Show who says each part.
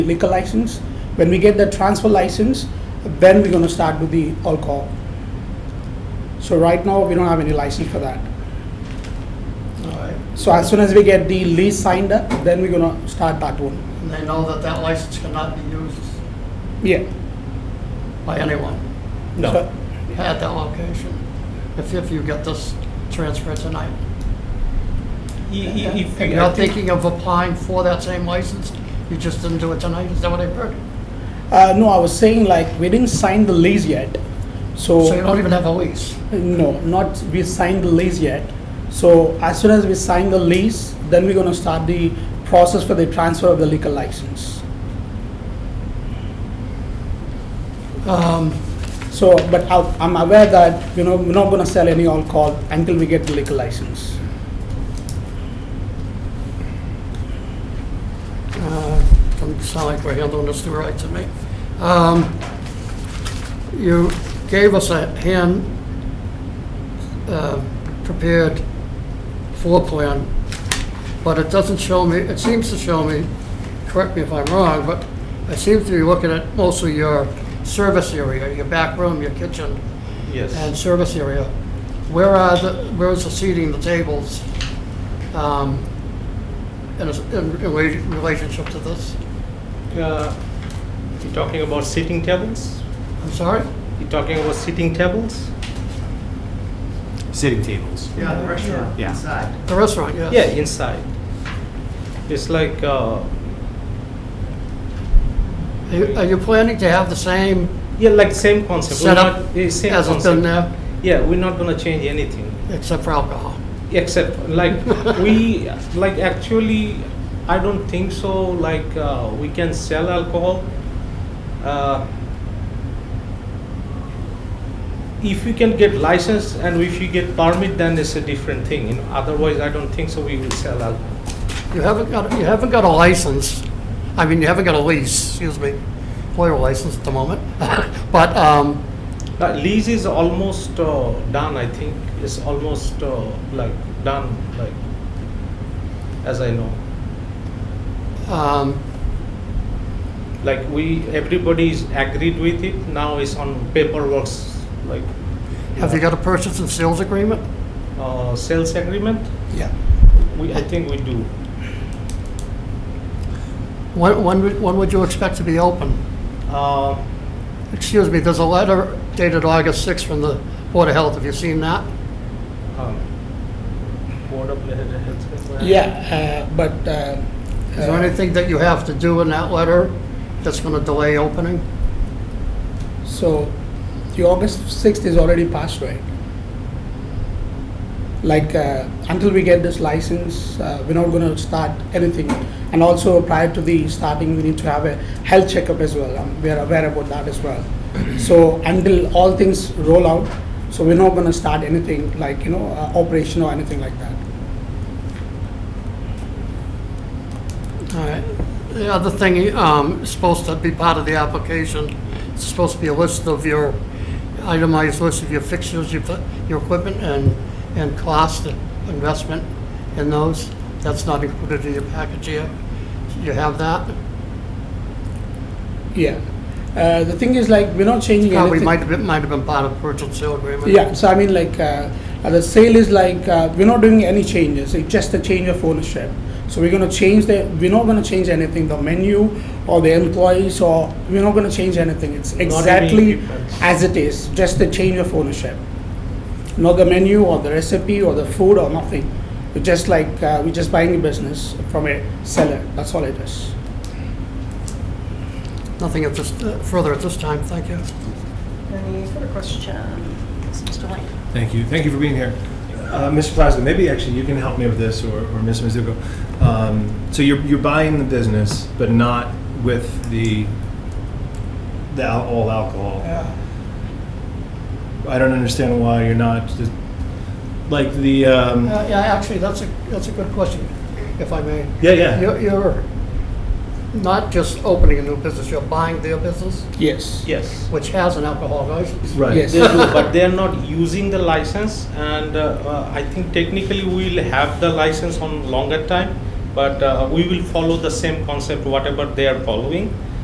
Speaker 1: liquor license. When we get the transfer license, then we're gonna start with the alcohol. So right now, we don't have any license for that.
Speaker 2: Alright.
Speaker 1: So as soon as we get the lease signed up, then we're gonna start that one.
Speaker 2: And they know that that license cannot be used
Speaker 1: Yeah.
Speaker 2: by anyone
Speaker 1: So-
Speaker 2: at that location, if, if you get this transfer tonight.
Speaker 3: You- you- you-
Speaker 2: And you're thinking of applying for that same license, you just didn't do it tonight, is that what I heard?
Speaker 1: Uh, no, I was saying like, we didn't sign the lease yet, so.
Speaker 2: So you don't even have a lease.
Speaker 1: No, not, we signed the lease yet. So as soon as we sign the lease, then we're gonna start the process for the transfer of the liquor license.
Speaker 2: Um,
Speaker 1: So, but I'll- I'm aware that, you know, we're not gonna sell any alcohol until we get the liquor license.
Speaker 2: uh, Doesn't sound like we're handling this the right to me. Um, You gave us a hand uh, prepared floor plan, but it doesn't show me, it seems to show me, correct me if I'm wrong, but I seem to be looking at mostly your service area, your back room, your kitchen, and
Speaker 3: Yes.
Speaker 2: service area. Where are the, where is the seating, the tables, um, in, a- in rela- relationship to this?
Speaker 3: Uh, You're talking about sitting tables?
Speaker 2: I'm sorry?
Speaker 3: You're talking about sitting tables?
Speaker 4: Sitting tables.
Speaker 5: Yeah, the restaurant
Speaker 4: Yeah.
Speaker 5: inside.
Speaker 2: The restaurant, yes.
Speaker 3: Yeah, inside. It's like, uh,
Speaker 2: Are you- Are you planning to have the same
Speaker 3: yeah, like same concept. We're
Speaker 2: setup
Speaker 3: not- it's
Speaker 2: as
Speaker 3: same
Speaker 2: it's been
Speaker 3: concept.
Speaker 2: there,
Speaker 3: Yeah, we're not gonna change anything.
Speaker 2: except for alcohol?
Speaker 3: except like we like actually i don't think so like uh, we can sell alcohol uh, if you can get license and if you get permit then it's a different thing you know otherwise i don't think so we will sell alcohol
Speaker 2: You haven't got, you haven't got a license, I mean, you haven't got a lease, excuse me, lawyer license at the moment, but, um,
Speaker 3: uh, lease is almost uh, done i think it's almost uh, like done like as i know
Speaker 2: um,
Speaker 3: like we everybody is agreed with it now it's on paperwork like
Speaker 2: have you got a purchase and sales agreement?
Speaker 3: uh, sales agreement
Speaker 1: Yeah.
Speaker 3: we i think we do
Speaker 2: When, when would- when would you expect to be open?
Speaker 3: uh,
Speaker 2: Excuse me, there's a letter dated August 6th from the Board of Health, have you seen that?
Speaker 3: um, board of health
Speaker 1: Yeah, uh, but. uh,
Speaker 2: Is there
Speaker 1: uh,
Speaker 2: anything that you have to do in that letter that's going to delay opening?
Speaker 1: So, the August sixth is already passed, right? Like, uh, until we get this license, uh, we're not gonna start anything. And also prior to the starting, we need to have a health checkup as well. Um, We are aware about that as well. So, until all things roll out, so we're not gonna start anything like, you know, uh, operation or anything like that.
Speaker 2: All right. The other thing, um, is supposed to be part of the application, it's supposed to be a list of your, itemized list of your fixtures, your, your equipment and, and cost and investment in those. That's not included in your package here. You have that?
Speaker 1: Yeah. Uh, The thing is like, we're not changing
Speaker 2: Uh,
Speaker 1: anything.
Speaker 2: we might have been, might have been part of purchase and sale agreement.
Speaker 1: Yeah, so I mean, like, uh, uh, the sale is like, uh, we're not doing any changes, it's just a change of ownership. So we're gonna change the, we're not gonna change anything, the menu or the employees or, we're not gonna change anything. It's
Speaker 3: any
Speaker 1: exactly
Speaker 3: difference.
Speaker 1: as it is, just a change of ownership. Not the menu or the recipe or the food or nothing. We're just like, uh, we're just buying a business from a seller, that's all it is.
Speaker 2: Nothing at this, uh, further at this time, thank you.
Speaker 5: Any further questions? Mr. Lane?
Speaker 4: Thank you. Thank you for being here. Uh, Mr. Plasko, maybe actually you can help me with this or, or Ms. Mizuko. Um, so you're, you're buying the business, but not with the, the al- all alcohol. I don't understand why you're not just, like the, um,
Speaker 2: Uh, Yeah, actually, that's a, that's a good question, if I may.
Speaker 4: yeah, yeah.
Speaker 2: You're, you're not just opening a new business, you're buying their business,
Speaker 1: Yes.
Speaker 3: yes
Speaker 2: which has an alcohol license.
Speaker 4: Right.
Speaker 1: Yes.
Speaker 3: they do, but they are not using the license and uh, uh, i think technically we'll have the license on longer time But uh, we will follow the same concept, whatever they are following.